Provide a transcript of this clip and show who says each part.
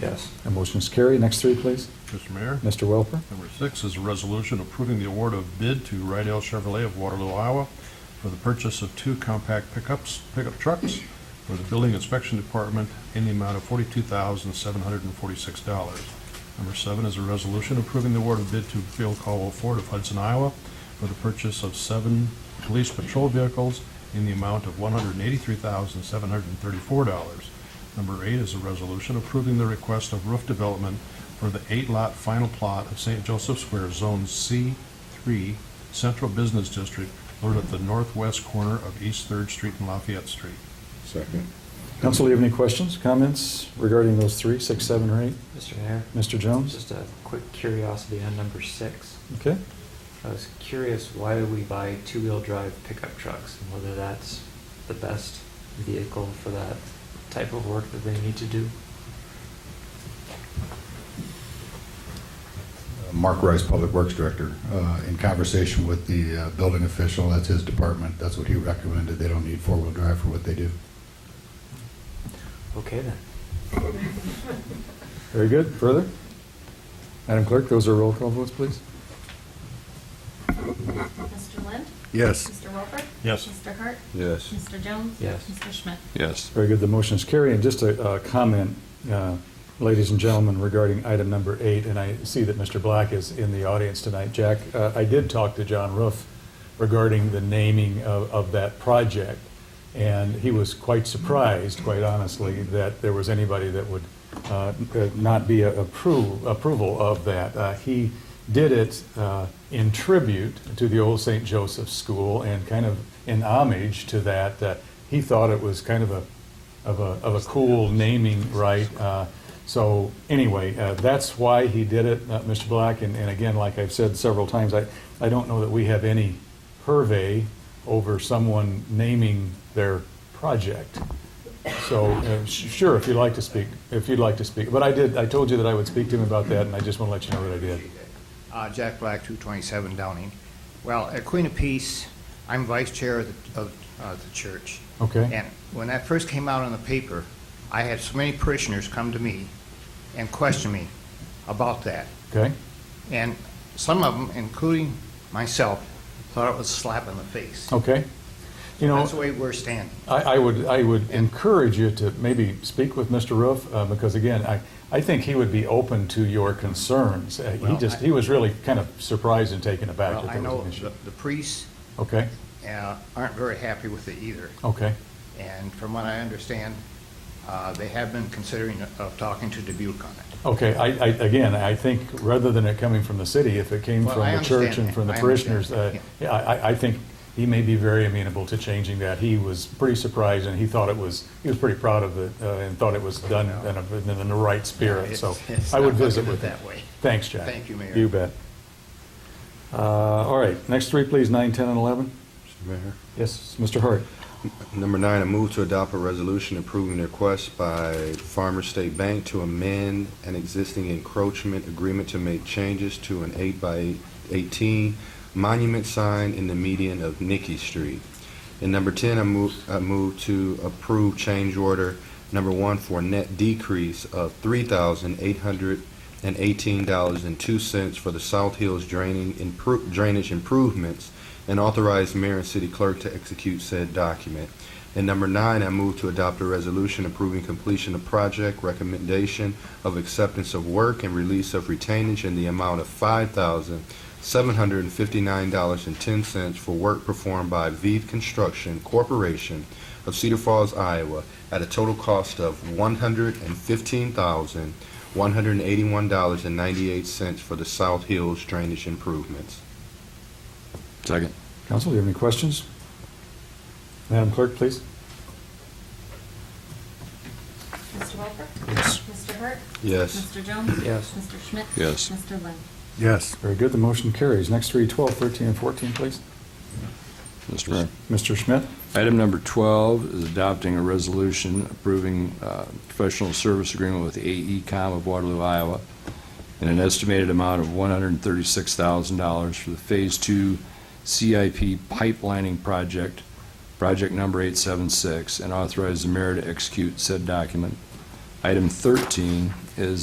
Speaker 1: Yes.
Speaker 2: That motion is carried. Next three, please.
Speaker 3: Mr. Mayor?
Speaker 2: Mr. Welper.
Speaker 3: Number six is a resolution approving the award of bid to Rydell Chevrolet of Waterloo, Iowa for the purchase of two compact pickups, pickup trucks for the Building Inspection Department in the amount of forty-two thousand, seven hundred and forty-six dollars. Number seven is a resolution approving the award of bid to Bill Caldwell Ford of Hudson, Iowa for the purchase of seven police patrol vehicles in the amount of one hundred and eighty-three thousand, seven hundred and thirty-four dollars. Number eight is a resolution approving the request of roof development for the eight-lot final plot of St. Joseph Square, Zone C3, Central Business District, located at the northwest corner of East Third Street and Lafayette Street.
Speaker 4: Second.
Speaker 2: Council, do you have any questions, comments regarding those three, six, seven, or eight?
Speaker 1: Mr. Mayor?
Speaker 2: Mr. Jones?
Speaker 1: Just a quick curiosity on number six.
Speaker 2: Okay.
Speaker 1: I was curious why we buy two-wheel drive pickup trucks and whether that's the best vehicle for that type of work that they need to do.
Speaker 4: Mark Rice, Public Works Director, uh, in conversation with the uh, building official, that's his department, that's what he recommended. They don't need four-wheel drive for what they do.
Speaker 1: Okay then.
Speaker 2: Very good. Further? Madam Clerk, those are roll call votes, please.
Speaker 5: Mr. Lind?
Speaker 4: Yes.
Speaker 5: Mr. Welper?
Speaker 3: Yes.
Speaker 5: Mr. Hart?
Speaker 6: Yes.
Speaker 5: Mr. Jones?
Speaker 1: Yes.
Speaker 5: Mr. Schmidt?
Speaker 6: Yes.
Speaker 2: Very good. The motion is carried. And just a uh, comment, uh, ladies and gentlemen, regarding item number eight, and I see that Mr. Black is in the audience tonight. Jack, uh, I did talk to John Roof regarding the naming of, of that project, and he was quite surprised, quite honestly, that there was anybody that would uh, uh, not be a approve, approval of that. Uh, He did it uh, in tribute to the old St. Joseph's School and kind of in homage to that. Uh, He thought it was kind of a, of a, of a cool naming right. Uh, So anyway, uh, that's why he did it, uh, Mr. Black. And, and again, like I've said several times, I, I don't know that we have any purvey over someone naming their project. So, uh, sh- sure, if you'd like to speak, if you'd like to speak, but I did, I told you that I would speak to him about that, and I just want to let you know that I did.
Speaker 7: Uh, Jack Black, 227 Downing. Well, at Queen of Peace, I'm vice chair of the, of, uh, the church.
Speaker 2: Okay?
Speaker 7: And when that first came out in the paper, I had so many parishioners come to me and question me about that.
Speaker 2: Okay?
Speaker 7: And some of them, including myself, thought it was a slap in the face.
Speaker 2: Okay? Oh, You know,
Speaker 7: That's the way we're standing.
Speaker 2: I, I would, I would encourage you to maybe speak with Mr. Roof, uh, because again, I, I think he would be open to your concerns. Uh, He
Speaker 7: Well,
Speaker 2: just,
Speaker 7: I-
Speaker 2: he was really kind of surprised and taken aback
Speaker 7: Well,
Speaker 2: that
Speaker 7: I
Speaker 2: there was
Speaker 7: know
Speaker 2: an issue.
Speaker 7: the the priests
Speaker 2: Okay?
Speaker 7: uh, aren't very happy with it either.
Speaker 2: Okay?
Speaker 7: And from what I understand, uh, they have been considering of talking to Dubuque on it.
Speaker 2: Okay, I, I, again, I think rather than it coming from the city, if it came
Speaker 7: Well,
Speaker 2: from
Speaker 7: I
Speaker 2: the church
Speaker 7: understand
Speaker 2: and from the
Speaker 7: that. I
Speaker 2: parishioners, uh,
Speaker 7: understand that,
Speaker 2: yeah, I, I- I think he may be very amenable to changing that. He was pretty surprised and he thought it was, he was pretty proud of it uh, and thought it was done in a- in the right spirit,
Speaker 7: It's-
Speaker 2: so
Speaker 7: it's
Speaker 2: I would
Speaker 7: not looking
Speaker 2: visit
Speaker 7: at
Speaker 2: with him.
Speaker 7: that way.
Speaker 2: Thanks, Jack.
Speaker 7: Thank you, Mayor.
Speaker 2: You bet. Uh, All right, next three, please, nine, 10, and 11.
Speaker 6: Mr. Mayor?
Speaker 2: Yes, Mr. Hart.
Speaker 6: Number nine, a move to adopt a resolution approving the request by Farmers State Bank to amend an existing encroachment agreement to make changes to an eight by eighteen monument sign in the median of Nicky Street. And number ten, I move, I move to approve change order number one for a net decrease of three thousand eight hundred and eighteen dollars and two cents for the South Hills draining, impro- drainage improvements and authorize mayor and city clerk to execute said document. And number nine, I move to adopt a resolution approving completion of project, recommendation of acceptance of work, and release of retainage in the amount of five thousand seven hundred and fifty-nine dollars and ten cents for work performed by Vive Construction Corporation of Cedar Falls, Iowa, at a total cost of one hundred and fifteen thousand one hundred and eighty-one dollars and ninety-eight cents for the South Hills drainage improvements.
Speaker 8: Second.
Speaker 2: Council, do you have any questions? Madam Clerk, please.
Speaker 5: Mr. Welper?
Speaker 3: Yes.
Speaker 5: Mr. Hart?
Speaker 6: Yes.
Speaker 5: Mr. Jones?
Speaker 1: Yes.
Speaker 5: Mr. Schmidt?
Speaker 8: Yes.
Speaker 5: Mr. Lind?
Speaker 4: Yes.
Speaker 2: Very good, the motion carries. Next three, 12, 13, and 14, please.
Speaker 8: Mr. Mayor.
Speaker 2: Mr. Schmidt?
Speaker 8: Item number 12 is adopting a resolution approving uh, professional service agreement with AECom of Waterloo, Iowa, in an estimated amount of $136,000 for the Phase 2 CIP pipelining project, project number 876, and authorize the mayor to execute said document. Item 13 is